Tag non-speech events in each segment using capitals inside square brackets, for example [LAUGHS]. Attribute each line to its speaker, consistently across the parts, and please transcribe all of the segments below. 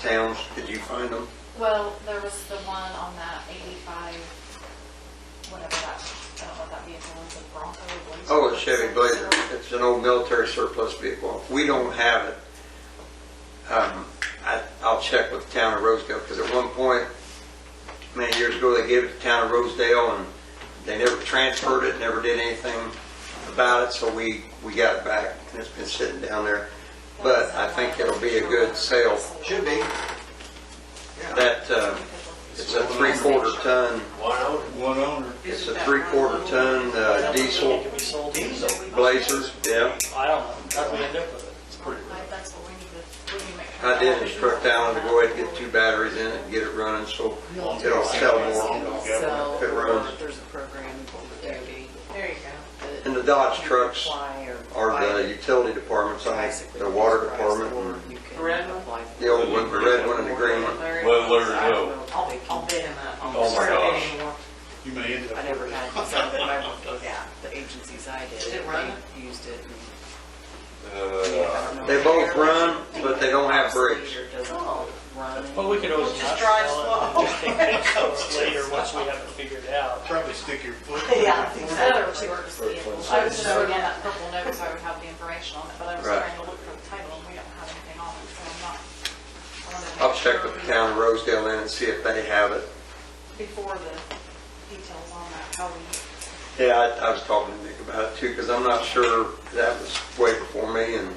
Speaker 1: towns, did you find them?
Speaker 2: Well, there was the one on that eighty-five, whatever that, I don't know what that vehicle was, a Bronco Blazer.
Speaker 1: Oh, it's Chevy Blazer, it's an old military surplus vehicle, we don't have it. Um, I, I'll check with the town of Rosedale, because at one point, many years ago, they gave it to the town of Rosedale, and they never transferred it, never did anything about it, so we, we got it back, and it's been sitting down there. But I think it'll be a good sale,
Speaker 3: Should be. Yeah.
Speaker 1: that, uh, it's a three-quarter ton,
Speaker 3: One owner.
Speaker 4: One owner.
Speaker 1: it's a three-quarter ton uh, diesel
Speaker 5: It can be sold
Speaker 3: Diesel.
Speaker 5: easily.
Speaker 1: blazer, yeah.
Speaker 5: I don't know, how do we end up with it? It's pretty
Speaker 2: Like, that's what we need to, we need to make sure.
Speaker 1: I did instruct Alan to go ahead and get two batteries in it and get it running, so it'll sell more.
Speaker 6: So,
Speaker 1: If it runs.
Speaker 6: or if there's a program for the DOD.
Speaker 2: There you go.
Speaker 6: that
Speaker 1: And the Dodge trucks
Speaker 6: apply or
Speaker 1: are the
Speaker 6: buy
Speaker 1: uh, utility departments, I think,
Speaker 6: basically
Speaker 1: the water
Speaker 6: price,
Speaker 1: department,
Speaker 6: or
Speaker 1: and
Speaker 6: you can
Speaker 7: Red one?
Speaker 6: apply for
Speaker 1: the old one, the red one and the green one.
Speaker 7: Larry
Speaker 4: Well,
Speaker 7: wants-
Speaker 4: Larry, no.
Speaker 7: I'll, I'll bid him up.
Speaker 4: Oh, my
Speaker 7: Started
Speaker 4: gosh.
Speaker 7: bidding more.
Speaker 4: You may end
Speaker 6: I
Speaker 4: up
Speaker 6: never
Speaker 4: with
Speaker 6: had it, so when I worked with
Speaker 7: Yeah.
Speaker 6: the agencies I did,
Speaker 7: Did it run?
Speaker 6: they used it. and- I
Speaker 4: Uh,
Speaker 6: don't know
Speaker 1: They
Speaker 6: if
Speaker 1: both
Speaker 6: they're-
Speaker 1: run, but they don't have brakes.
Speaker 6: Or doesn't
Speaker 7: Oh.
Speaker 6: run.
Speaker 5: Well, we could always
Speaker 7: Just
Speaker 5: not
Speaker 7: drive
Speaker 5: sell it, and just take
Speaker 7: [LAUGHS]
Speaker 5: pictures later, once we have it figured out.
Speaker 4: Probably stick your foot.
Speaker 7: Yeah,
Speaker 2: Another
Speaker 7: exactly.
Speaker 2: two-horse vehicle. I was just looking at that purple note, so I would have the information on it, but I was
Speaker 1: Right.
Speaker 2: trying to look for the title, and we don't have anything on it, so I'm not. I wanted to
Speaker 1: I'll
Speaker 2: make
Speaker 1: check
Speaker 2: sure
Speaker 1: with the town of Rosedale then and see if they have it.
Speaker 2: Before the details on that, how we,
Speaker 1: Yeah, I, I was talking to Nick about it too, because I'm not sure, that was way before me, and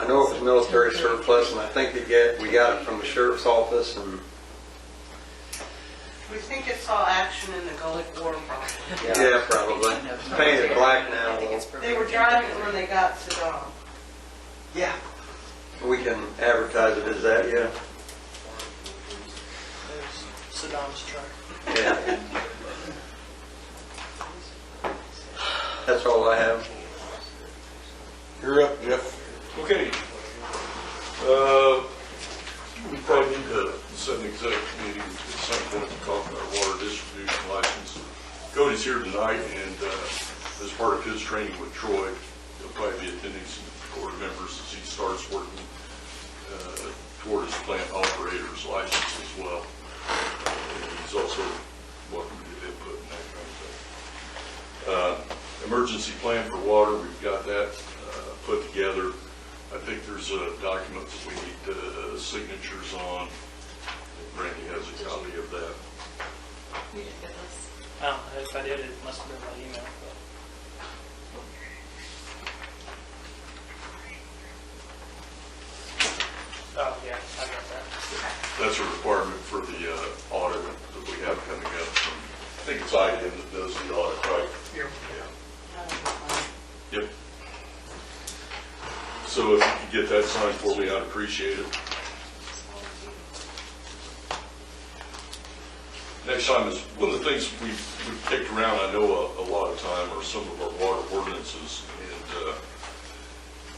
Speaker 1: I know it was military surplus, and I think they get, we got it from the sheriff's office, and
Speaker 7: We think it saw action in the Gulf War probably.
Speaker 1: yeah, probably. It's Painted black now,
Speaker 6: I think it's
Speaker 1: though.
Speaker 7: They were driving it when they got Saddam.
Speaker 1: Yeah. We can advertise it as that, yeah.
Speaker 5: There's Saddam's truck.
Speaker 1: Yeah. That's all I have. You're up, Jeff.
Speaker 4: Okay. Uh, We probably need to set an executive meeting at some point to talk about water distribution license. Cody's here tonight, and uh, as part of his training with Troy, he'll probably be attending some board members as he starts working uh, toward his plant operator's license as well. And He's also welcome to get input and that kind of thing. Uh, Emergency plan for water, we've got that uh, put together. I think there's a document that we need uh, signatures on. Randy has a copy of that.
Speaker 2: we didn't get this.
Speaker 5: I don't know, if I did, it must have been by email, but. Oh, yeah, I got that.
Speaker 4: That's a requirement for the uh, audit that we have coming up. from- I think it's IDM that does the audit, right?
Speaker 5: Here.
Speaker 4: Yeah. Yep. So if you could get that signed for me, I'd appreciate it. Next time is, one of the things we- we've kicked around, I know a a lot of time, are some of our water ordinances. And, uh,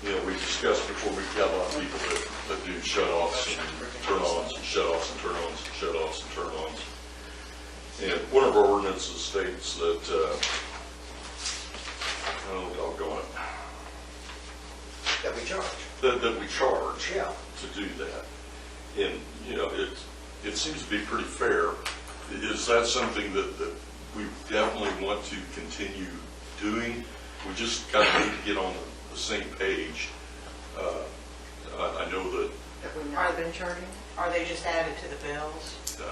Speaker 4: you know, we discussed before, we've got a lot of people that that do shut-offs and turn-ons and shut-offs and turn-ons and shut-offs and turn-ons. And one of our ordinances states that, uh, oh, doggone it,
Speaker 3: That we charge.
Speaker 4: that, that we charge
Speaker 3: Yeah.
Speaker 4: to do that. And, you know, it, it seems to be pretty fair. Is that something that, that we definitely want to continue doing? We just kind of need to get on the same page. Uh, I, I know that,
Speaker 6: Have we not been charging?
Speaker 7: Are they just added to the bills?
Speaker 4: uh,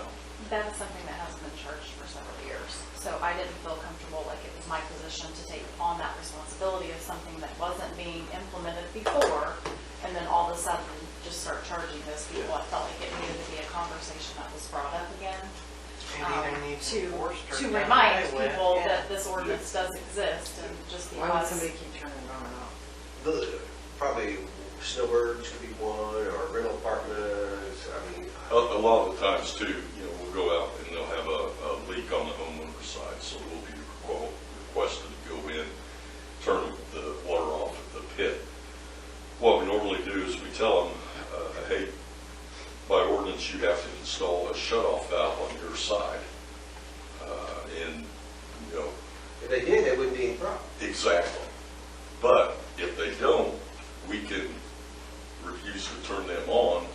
Speaker 2: That's something that hasn't been charged for several years. So I didn't feel comfortable, like it was my position to take on that responsibility of something that wasn't being implemented before, and then all of a sudden, just start charging those people. I felt like it needed to be a conversation that was brought up again.
Speaker 7: Maybe
Speaker 2: um,
Speaker 7: they need
Speaker 2: to,
Speaker 7: to force her
Speaker 2: to
Speaker 7: down
Speaker 2: remind
Speaker 7: the way.
Speaker 2: people
Speaker 7: Yeah.
Speaker 2: that this ordinance does exist, and just
Speaker 6: Why would
Speaker 2: because.
Speaker 6: somebody keep turning it on and off?
Speaker 3: The, probably snowbirds could be one, or rental apartments, I mean.
Speaker 4: A, a lot of the times too, you know, we'll go out and they'll have a, a leak on the homeowner's side, so we'll be requ- requested to go in, turn the water off at the pit. What we normally do is we tell them, uh, hey, by ordinance, you have to install a shut-off valve on your side. Uh, and, you know,
Speaker 3: If they did, that wouldn't be any problem.
Speaker 4: Exactly. But if they don't, we can refuse to turn them on